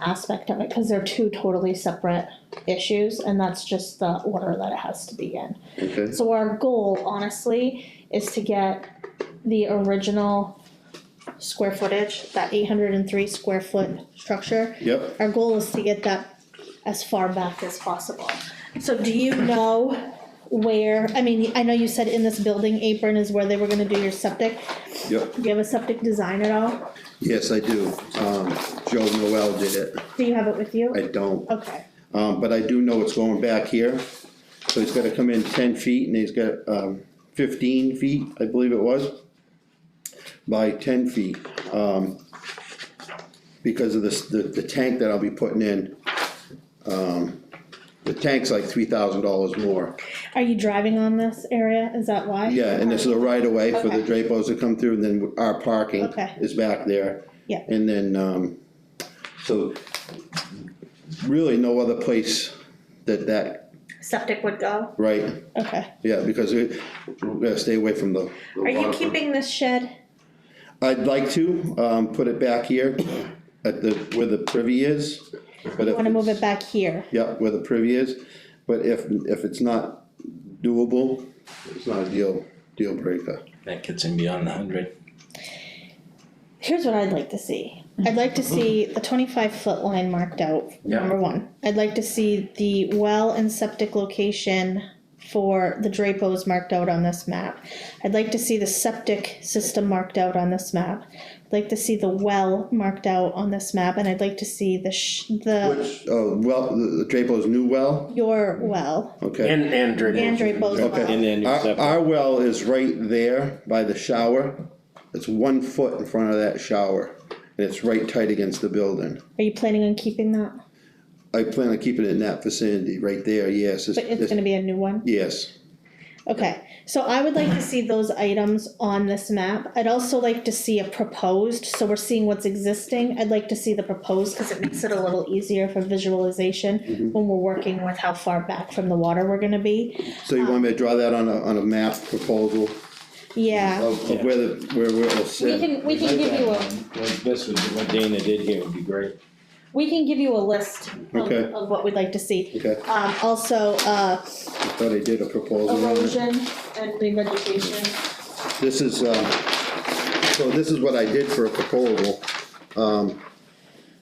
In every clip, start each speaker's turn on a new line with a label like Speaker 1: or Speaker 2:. Speaker 1: aspect of it, cause they're two totally separate issues, and that's just the order that it has to be in.
Speaker 2: okay,
Speaker 1: So our goal, honestly, is to get the original square footage, that eight hundred and three square foot structure.
Speaker 2: yep,
Speaker 1: Our goal is to get that as far back as possible. So do you know where, I mean, I know you said in this building apron is where they were gonna do your septic.
Speaker 2: yep,
Speaker 1: Do you have a septic design at all?
Speaker 2: yes, I do, um, Joe Noel did it,
Speaker 1: Do you have it with you?
Speaker 2: I don't,
Speaker 1: Okay,
Speaker 2: um, but I do know it's going back here. So he's gotta come in ten feet and he's got, um, fifteen feet, I believe it was, by ten feet, um. Because of this, the, the tank that I'll be putting in, um, the tank's like three thousand dollars more.
Speaker 1: are you driving on this area, is that why?
Speaker 2: Yeah, and this is a right of way for the
Speaker 1: Okay.
Speaker 2: Drapos to come through, and then our parking
Speaker 1: Okay.
Speaker 2: is back there.
Speaker 1: Yeah.
Speaker 2: And then, um, so really no other place that that,
Speaker 1: Septic would go?
Speaker 2: right,
Speaker 1: Okay,
Speaker 2: yeah, because we, we gotta stay away from the. the
Speaker 1: are you
Speaker 2: waterfront.
Speaker 1: keeping this shed?
Speaker 2: I'd like to, um, put it back here at the, where the privy is, but
Speaker 1: You
Speaker 2: if,
Speaker 1: wanna move it back here?
Speaker 2: yeah, where the privy is, but if, if it's not doable, it's not a deal, deal breaker.
Speaker 3: That gets him beyond the hundred.
Speaker 1: Here's what I'd like to see. I'd like to see the twenty-five foot line marked out,
Speaker 3: Yeah.
Speaker 1: number one. I'd like to see the well and septic location for the Drapos marked out on this map. I'd like to see the septic system marked out on this map. I'd like to see the well marked out on this map, and I'd like to see the sh- the,
Speaker 2: Which, oh, well, the the Drapo's new well?
Speaker 1: your well,
Speaker 2: Okay.
Speaker 4: And, and Dribble.
Speaker 1: and Drapos
Speaker 2: Okay.
Speaker 1: well.
Speaker 4: then
Speaker 2: Our, our well is right there by the shower. It's one foot in front of that shower, and it's right tight against the building.
Speaker 1: Are you planning on keeping that?
Speaker 2: I plan on keeping it in that vicinity, right there, yes,
Speaker 1: But it's
Speaker 2: it's,
Speaker 1: gonna be a new one?
Speaker 2: yes,
Speaker 1: Okay, so I would like to see those items on this map. I'd also like to see a proposed, so we're seeing what's existing. I'd like to see the proposed because it makes it a little easier for visualization
Speaker 2: Mm-hmm.
Speaker 1: when we're working with how far back from the water we're gonna be.
Speaker 2: so you want me to draw that on a, on a map proposal
Speaker 1: Yeah,
Speaker 2: of, of where the, where, where it'll
Speaker 5: We
Speaker 2: sit?
Speaker 5: can, we can give you a,
Speaker 4: This was what Dana did here would be great.
Speaker 5: we can give you a list
Speaker 1: of,
Speaker 2: Okay.
Speaker 1: of what we'd like to see.
Speaker 2: Okay,
Speaker 1: Um, also, uh,
Speaker 2: I thought I did a proposal on it.
Speaker 1: erosion and revegetation.
Speaker 2: This is, um, so this is what I did for a proposal. Um,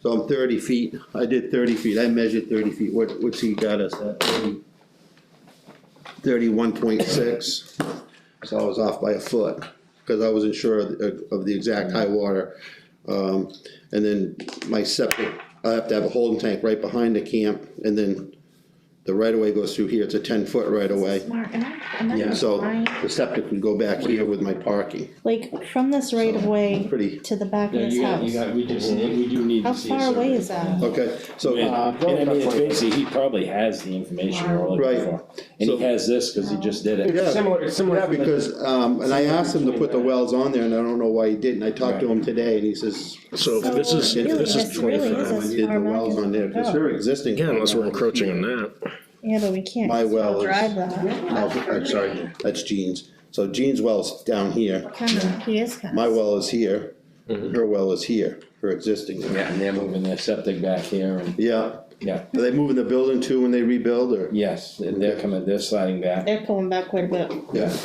Speaker 2: so I'm thirty feet, I did thirty feet, I measured thirty feet, what, what's he got us at, thirty? Thirty-one point six, so I was off by a foot, cause I wasn't sure of, the- of the exact high water. Um, and then my septic, I have to have a holding tank right behind the camp, and then the right-of-way goes through here, it's a ten-foot right-of-way.
Speaker 1: Mark, am I, am I
Speaker 2: So
Speaker 1: lying?
Speaker 2: the septic would go back here with my parking,
Speaker 1: Like from this right of way
Speaker 2: pretty,
Speaker 1: to the back of
Speaker 4: Yeah,
Speaker 1: this
Speaker 4: you got, you
Speaker 1: house,
Speaker 4: got, we just, need- we do need
Speaker 1: how
Speaker 4: to see. a
Speaker 1: far away
Speaker 4: survey.
Speaker 1: is that?
Speaker 2: okay, so.
Speaker 4: Uh,
Speaker 3: And I mean, it's basically, he probably has the information we're
Speaker 2: Right.
Speaker 3: looking for, and
Speaker 2: So-
Speaker 3: he has this, cause he just did it.
Speaker 2: Yeah.
Speaker 4: It's similar, it's similar.
Speaker 2: Yeah,
Speaker 4: to the-
Speaker 2: because, um, and I asked him to put the wells on there, and I don't know why he didn't, I talked to him today, and he says.
Speaker 6: So this is,
Speaker 1: really,
Speaker 6: this is
Speaker 1: this really is
Speaker 6: twenty-five.
Speaker 1: a-
Speaker 2: I did the wells on there, because they're existing.
Speaker 6: Yeah, unless we're encroaching on that.
Speaker 1: Yeah, but we can't.
Speaker 2: My well is-
Speaker 1: Drive that.
Speaker 2: Oh, I'm sorry, that's Jean's, so Jean's well's down here,
Speaker 1: Kinda, he is kinda.
Speaker 2: my well is here, her well is here, her existing. well.
Speaker 3: Yeah,
Speaker 4: And they're moving
Speaker 3: Moving their septic back here and,
Speaker 2: Yeah,
Speaker 3: yeah,
Speaker 2: are they moving the building too when they rebuild, or?
Speaker 3: yes, they're- they're coming, they're sliding back,
Speaker 1: They're pulling back quite a bit.
Speaker 2: Yeah.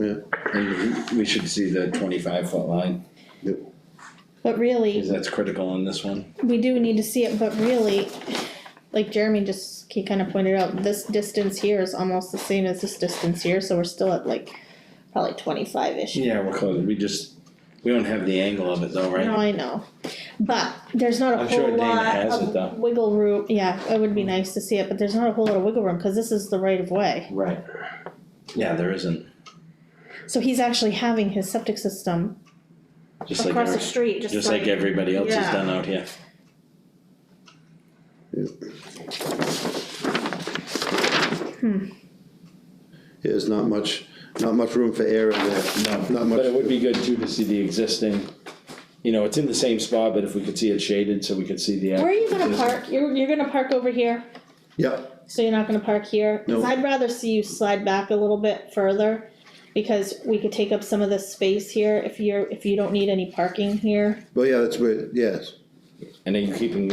Speaker 2: Yeah,
Speaker 3: and we should see the twenty-five foot line,
Speaker 1: But
Speaker 3: cause
Speaker 1: really,
Speaker 3: that's critical on this one.
Speaker 1: we do need to see it, but really, like Jeremy just, he kinda pointed out, this distance here is almost the same as this distance here, so we're still at like probably twenty-five-ish.
Speaker 3: Yeah, we're close, we just, we don't have the angle of it though,
Speaker 1: No,
Speaker 3: right?
Speaker 1: I know, but there's not a
Speaker 3: I'm sure
Speaker 1: whole
Speaker 3: Dana
Speaker 1: lot
Speaker 3: has it, though. Hmm.
Speaker 1: of wiggle room, yeah, it would be nice to see it, but there's not a whole lot of wiggle room, cause this is the right of way.
Speaker 3: Right. Yeah, there isn't,
Speaker 1: So he's actually having his septic system
Speaker 3: just like,
Speaker 1: across the
Speaker 3: every-
Speaker 1: street, just
Speaker 3: just like everybody else has
Speaker 1: Yeah.
Speaker 3: done out here.
Speaker 2: there's not much, not much room for air in there, not much.
Speaker 3: But it would be good too to see the existing, you know, it's in the same spot, but if we could see it shaded, so we could see the.
Speaker 1: Where are you gonna
Speaker 3: actual existing-
Speaker 1: park? You're, you're gonna park over here?
Speaker 2: Yeah,
Speaker 1: So you're not gonna park here? Cause
Speaker 2: No.
Speaker 1: I'd rather see you slide back a little bit further, because we could take up some of this space here if you're, if you don't need any parking here.
Speaker 2: well, yeah, that's where, yes.
Speaker 3: And then you're keeping